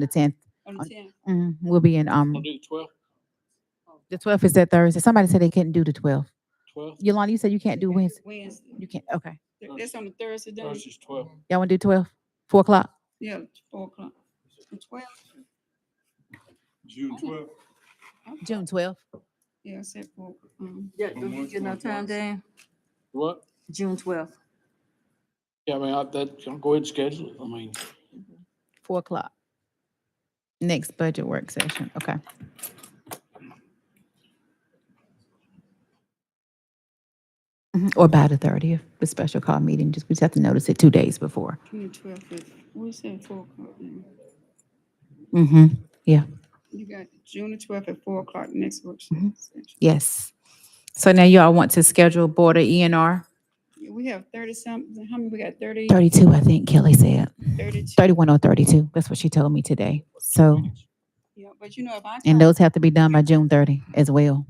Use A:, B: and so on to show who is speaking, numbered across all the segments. A: the tenth.
B: On the tenth,
A: We'll be in, um,
C: I'll do twelve,
A: the twelfth is that Thursday. Somebody said they couldn't do the twelfth.
C: twelve,
A: Yolanda, you said you can't do Wednesday.
B: Wednesday.
A: You can't, okay.
B: Th- That's on the Thursday, do
C: Thursday's twelve.
A: Y'all wanna do twelve? Four o'clock?
B: Yeah, four o'clock. The twelve,
C: June twelve.
A: June twelfth.
B: yeah, I said four. um,
D: Yeah,
C: From
D: do we
C: what
D: get no
C: to
D: time,
C: what?
D: Dan?
C: What?
D: June twelfth.
C: Yeah, I mean, I, that, I'll go ahead and schedule it. I mean,
A: Four o'clock. Next budget work session, okay. Mhm, Or by the thirtieth, the special call meeting, just, we just have to notice it two days before.
B: June twelfth is, we said four o'clock now.
A: Mm-hmm. Yeah,
B: You got June the twelfth at four o'clock next workshop.
A: Mm-hmm.
B: session.
A: yes. So now y'all want to schedule Board of E and R?
B: Yeah, We have thirty something, how many, we got thirty,
A: Thirty-two, I think Kelly said.
B: thirty-two,
A: Thirty-one or thirty-two, that's what she told me today. So,
B: yeah, but you know, if I
A: and
B: come,
A: those have to be done by June thirty as well.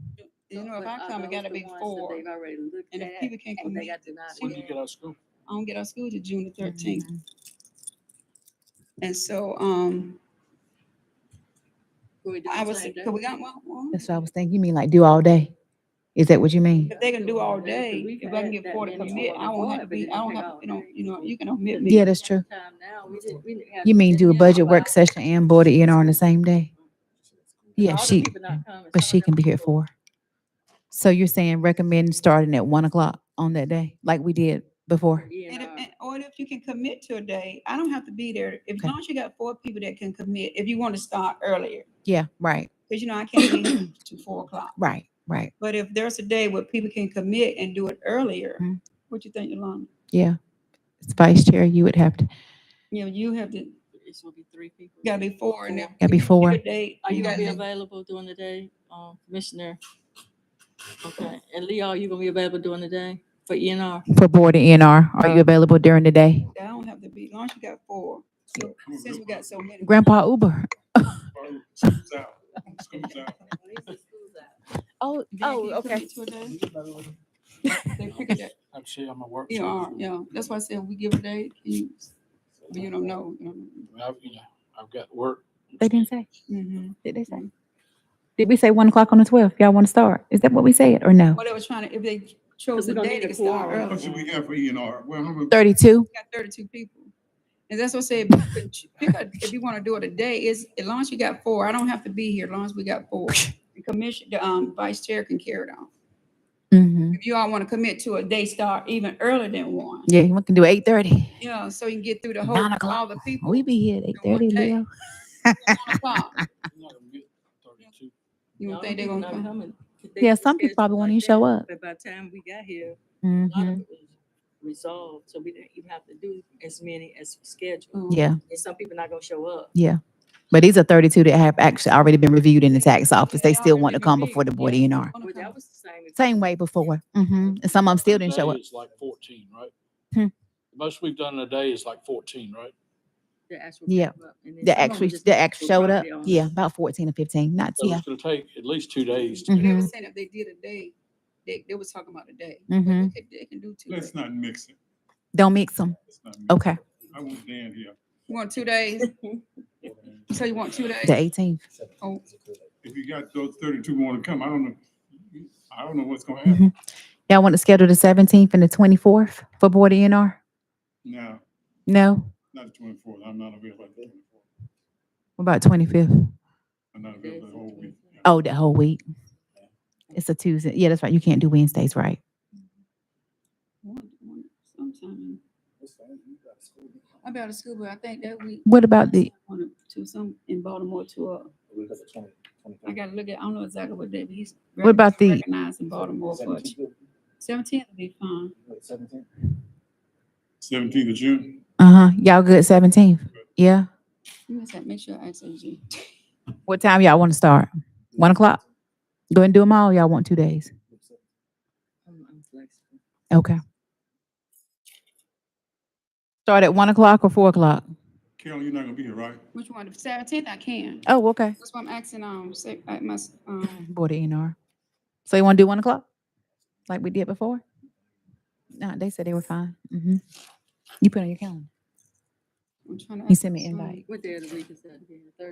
B: you know, if I
D: uh,
B: come, it gotta be four.
D: They've already looked
B: And
D: at,
B: if people can't
D: and they
B: commit,
D: got denied.
C: when do you get out of school?
B: I don't get out of school till June the
A: Mm-hmm.
B: thirteenth. And so, um,
D: Can we do
B: I
D: the
B: was,
D: same day?
B: could we got one, one?
A: That's what I was thinking, you mean like do all day? Is that what you mean?
B: If they can do all day,
D: We
B: if I can
D: had
B: get
D: that
B: four to
D: many
B: commit,
D: on
B: I
D: the
B: won't
D: board,
B: have to
D: but
B: be,
D: it
B: I don't
D: took
B: have,
D: all
B: you know,
D: day.
B: you know, you can omit me.
A: Yeah, that's true.
D: Time now, we didn't- we didn't have
A: You
D: to
A: mean
D: sit
A: do a
D: down
A: budget work
D: about-
A: session and Board of E and R on the same day? Yeah,
D: All the
A: she,
D: people not coming,
A: but
D: some
A: she
D: of
A: can
D: them
A: be here at
D: people-
A: four. So you're saying recommend starting at one o'clock on that day, like we did before?
D: Yeah,
B: And if,
D: nah.
B: and- or if you can commit to a day, I don't have to be there. If as
A: Okay.
B: long as you got four people that can commit, if you want to start earlier,
A: Yeah, right,
B: because you know, I can't be here to four o'clock.
A: right, right.
B: But if there's a day where people can commit and do it earlier,
A: Mhm.
B: what you think, Yolanda?
A: Yeah. As Vice Chair, you would have to,
B: You know, you have to, you
D: It's gonna be three people.
B: gotta be four and then.
A: Gotta be four.
B: Day,
D: Are
B: you
D: you gonna
B: gotta
D: be
B: be
D: available during the day, um, Commissioner? Okay, and Leo, are you gonna be available during the day for E and R?
A: for Board of E and R, are you available during the day?
B: I don't have to be, as long as you got four. So, Since we got so many.
A: Grandpa Uber.
C: School's out. School's out.
A: Oh,
B: Jackie, you commit to a day? They pick a day.
C: I'm sure I'm at work.
B: You
C: so-
B: are, yeah, that's why I said we give a day, you, you don't know. you
C: I mean, I've, you know, I've got work.
A: They didn't say,
B: don't know.
A: did they say? Did we say one o'clock on the twelfth? Y'all want to start? Is that what we said or no?
B: Well, they were trying to, if they chose
D: we
B: a
D: don't
B: day,
D: need
B: they
D: a
B: could start
D: quorum.
B: early.
E: What do we have for E and R? Well, I'm, gonna-
A: Thirty-two?
B: We Got thirty-two people. And that's what I said, if you could ch- pick a- if you want to do it a day, is, as long as you got four, I don't have to be here, as long as we got four. The commission, the, um, vice chair can carry it on.
A: Mm-hmm.
B: If you all want to commit to a day start even earlier than one,
A: Yeah, we can do eight thirty.
B: yeah, so you can get through the whole,
A: Nine
B: all
A: o'clock.
B: the people.
A: We be here at eight thirty,
B: Okay.
A: Leo.
B: Nine o'clock.
C: I'm not gonna get thirty-two.
B: You don't think they're gonna come?
A: Yeah, some people probably won't even show up.
D: But by the time we got here, a lot
A: Mm-hmm.
D: of it was resolved, so we didn't even have to do as many as scheduled.
B: Mm.
A: Yeah,
D: And some people not gonna show up.
A: yeah. But these are thirty-two that have actually already been reviewed in the tax office. They
B: Yeah,
A: still want to
B: already
A: come before the
B: reviewed,
A: board
B: yeah.
A: E and R.
B: Wanna
D: Well, that
B: come?
D: was the same.
A: Same way before. Mm-hmm. And some of them still didn't show up.
C: Today It's like fourteen, right?
A: Hmm.
C: The Most we've done in a day is like fourteen, right?
D: The actual.
A: Yeah,
D: came up, and then some of 'em
A: That actually,
D: just
A: that actually
D: were
A: showed up.
D: probably on the-
A: Yeah, about fourteen or fifteen, not
C: So
A: yeah.
C: it's gonna take at least two days. to-
A: Mhm.
B: They were saying if they did a day, they, they was talking about a day. but
A: Mhm.
B: They could- they can do two days.
E: let's not mix it.
A: Don't mix them.
E: Let's not mix it.
A: Okay,
E: I want Dan here.
B: You want two days? So you want two
A: the
B: days?
A: eighteenth.
B: Oh,
E: If you got those thirty-two want to come, I don't know, I don't know what's gonna
A: Mhm.
E: happen
A: Y'all want to schedule the seventeenth and the twenty-fourth for board E and R?
E: now.
A: No?
E: Not the twenty-fourth, I'm not available on the twenty-fourth.
A: What about twenty-fifth?
E: I'm not available the whole week.
A: Oh, that whole week. It's a Tuesday. Yeah, that's right. You can't do Wednesdays, right?
B: one- one- sometime. I'm out of school, but I think that week.
A: What about the,
B: on a- To some, in Baltimore to, uh, I gotta look at, I don't know exactly what day, but he's.
A: What about the-
B: Recognized in Baltimore for seventeen will be fine.
E: Seventeenth of June,
A: uh-huh, y'all good seventeenth? Yeah?
B: You must have, make sure I say G.
A: What time y'all want to start? One o'clock? Go ahead and do them all. Y'all want two days?
D: I'm- I'm flexible.
A: Okay. Start at one o'clock or four o'clock?
E: Carol, you're not gonna be here, right?
B: Which one? The seventeenth I can.
A: Oh, okay.
B: That's why I'm asking, um, say, I must, um,
A: Board of NR. So you want to do one o'clock? Like we did before? Mm-hmm. No, they said they were fine. hmm You put it on your calendar.
B: I'm trying to.
A: He sent me
B: ask my son.
A: invite.
D: What day of the week is that? again? The third?